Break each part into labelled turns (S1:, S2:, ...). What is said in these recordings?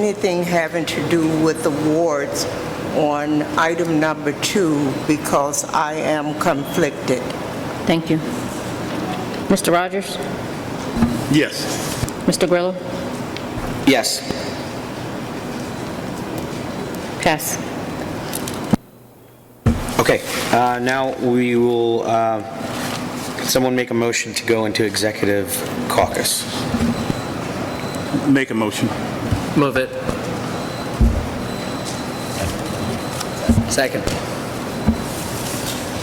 S1: anything having to do with awards on item number two because I am conflicted.
S2: Thank you. Mr. Rogers?
S3: Yes.
S2: Mr. Grillo?
S4: Yes.
S2: Pass.
S4: Okay, uh, now we will, uh, someone make a motion to go into executive caucus.
S3: Make a motion.
S5: Move it.
S4: Second.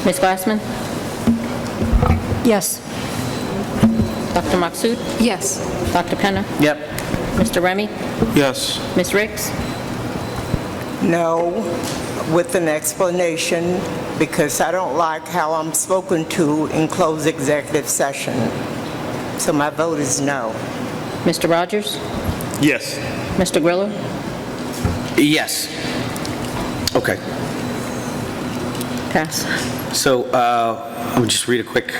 S2: Ms. Glassman?
S6: Yes.
S2: Dr. Maksud?
S6: Yes.
S2: Dr. Penna?
S5: Yep.
S2: Mr. Remy?
S3: Yes.
S2: Ms. Ricks?
S1: No, with an explanation, because I don't like how I'm spoken to in closed executive session. So my vote is no.
S2: Mr. Rogers?
S3: Yes.
S2: Mr. Grillo?
S4: Yes. Okay,
S2: Pass.
S4: so uh, I'll just read a quick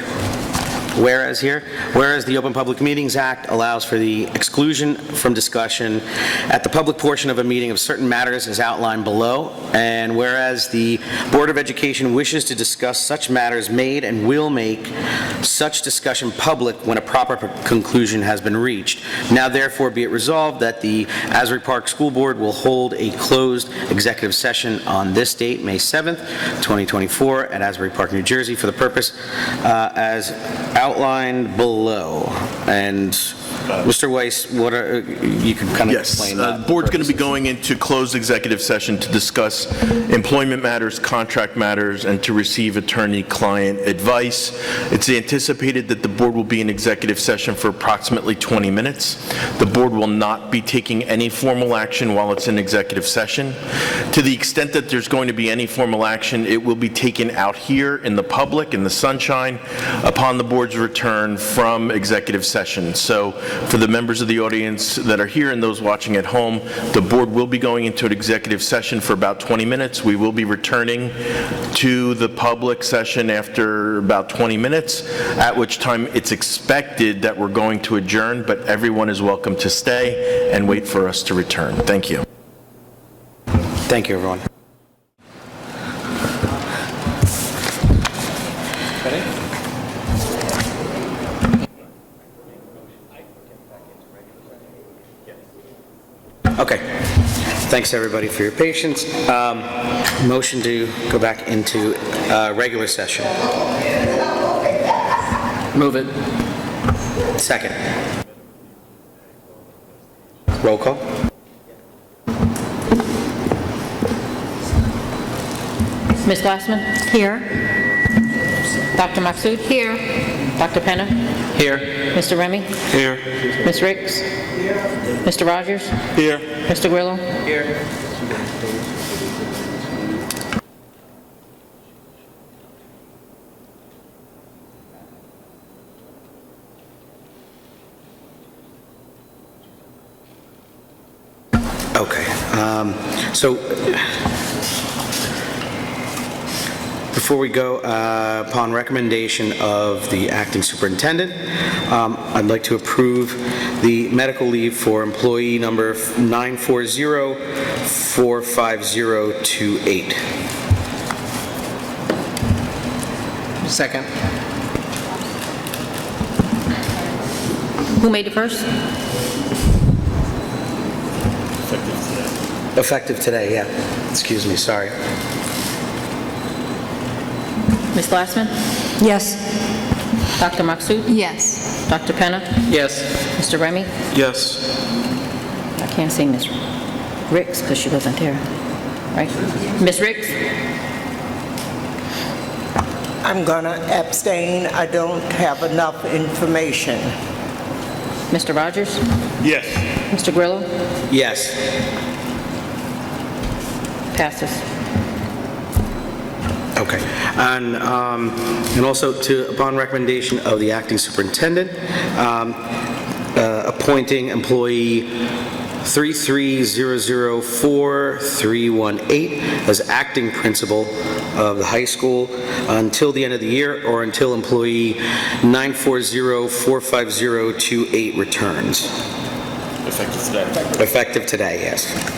S4: whereas here. Whereas the Open Public Meetings Act allows for the exclusion from discussion at the public portion of a meeting of certain matters as outlined below, and whereas the Board of Education wishes to discuss such matters made and will make such discussion public when a proper conclusion has been reached. Now therefore be it resolved that the Asbury Park School Board will hold a closed executive session on this date, May 7th, 2024, at Asbury Park, New Jersey, for the purpose uh, as outlined below. And Mr. Weiss, what are, you can kind of
S7: Yes,
S4: explain
S7: uh,
S4: that.
S7: the board's going to be going into closed executive session to discuss employment matters, contract matters, and to receive attorney-client advice. It's anticipated that the board will be in executive session for approximately 20 minutes. The board will not be taking any formal action while it's in executive session. To the extent that there's going to be any formal action, it will be taken out here in the public, in the sunshine, upon the board's return from executive session. So for the members of the audience that are here and those watching at home, the board will be going into an executive session for about 20 minutes. We will be returning to the public session after about 20 minutes, at which time it's expected that we're going to adjourn, but everyone is welcome to stay and wait for us to return. Thank you.
S4: Thank you, everyone. Okay. Thanks, everybody, for your patience. Um, Motion to go back into uh, regular session.
S5: Move it.
S4: Second. Roll call?
S2: Ms. Glassman?
S6: Here.
S2: Dr. Maksud? Here. Dr. Penna?
S5: Here.
S2: Mr. Remy?
S3: Here.
S2: Ms. Ricks? Mr. Rogers?
S3: Here.
S2: Mr. Grillo?
S4: Okay, um, so, before we go, uh, upon recommendation of the acting superintendent, um, I'd like to approve the medical leave for employee number 940-45028.
S5: Second.
S2: Who made the first?
S4: Effective today, yeah. Excuse me, sorry.
S2: Ms. Glassman?
S6: Yes.
S2: Dr. Maksud?
S6: Yes.
S2: Dr. Penna?
S5: Yes.
S2: Mr. Remy?
S3: Yes.
S2: I can't see Ms. Ricks because she wasn't there, right? Ms. Ricks?
S1: I'm going to abstain. I don't have enough information.
S2: Mr. Rogers?
S3: Yes.
S2: Mr. Grillo?
S4: Yes.
S2: Passes.
S4: Okay. And, um, and also to, upon recommendation of the acting superintendent, um, uh, appointing employee 33004-318 as acting principal of the high school until the end of the year or until employee 940-45028 returns. Effective today, yes.